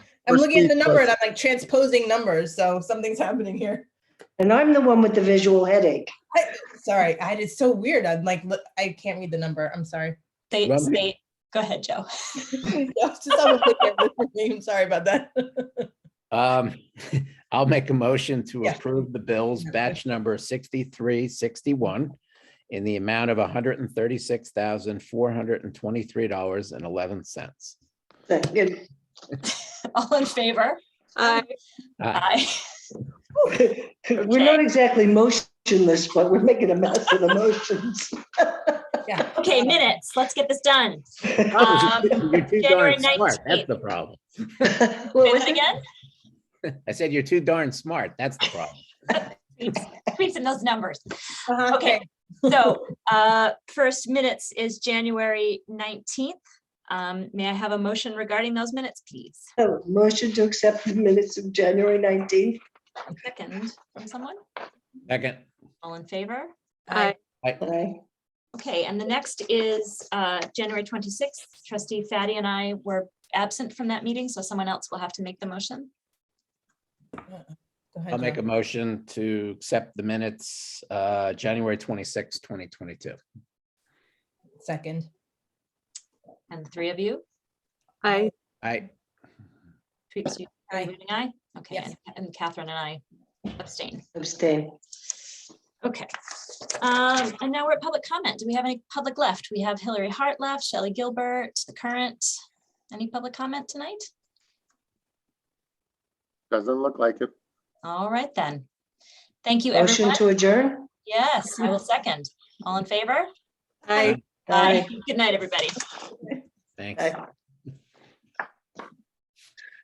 I'm First looking at the week number was- and I'm like transposing numbers, so something's happening here. And I'm the one with the visual headache. Sorry, I, it's so weird. I'm like, look, I can't read the number. I'm sorry. State, Run. state, go ahead, Joe. I was just on the thinking of the name. Sorry about that. Um, I'll make a motion to Yeah. approve the bills Okay. batch number sixty-three sixty-one in the amount of hundred and thirty-six thousand, four hundred and twenty-three dollars and eleven cents. Second. All in favor? Um, Aye. Aye. We're not exactly motionless, but we're making a mess of the motions. Yeah. Okay, minutes. Let's get this done. Um, You're too January darn smart. That's 19th. the problem. Say that again? I said you're too darn smart. That's the problem. Tweets- Tweets and those numbers. Uh-huh, Okay, so uh, first minutes is January 19th. Um, May I have a motion regarding those minutes, please? So, Oh, Motion to accept the minutes of January 19th. Second from someone? Second, All in favor? Aye. Aye. Okay, and the next is uh, January 26th. Trustee Fatty and I were absent from that meeting, so someone else will have to make the motion. Go ahead, I'll make a John. motion to accept the minutes, uh, January twenty-sixth, twenty twenty-two. Second. And the three of you? Aye. I, Tweets, you Aye. voting aye? Okay, Yes. and- and Catherine and I abstain. Abstain. Okay. Um, and now we're at public comment. Do we have any public left? We have Hillary Hart left, Shelley Gilbert, the current. Any public comment tonight? Doesn't look like it. All right then. Thank you, Motion everyone. to adjourn? Yes, I will second. All in favor? Aye. Aye. Good night, everybody. thanks. Aye.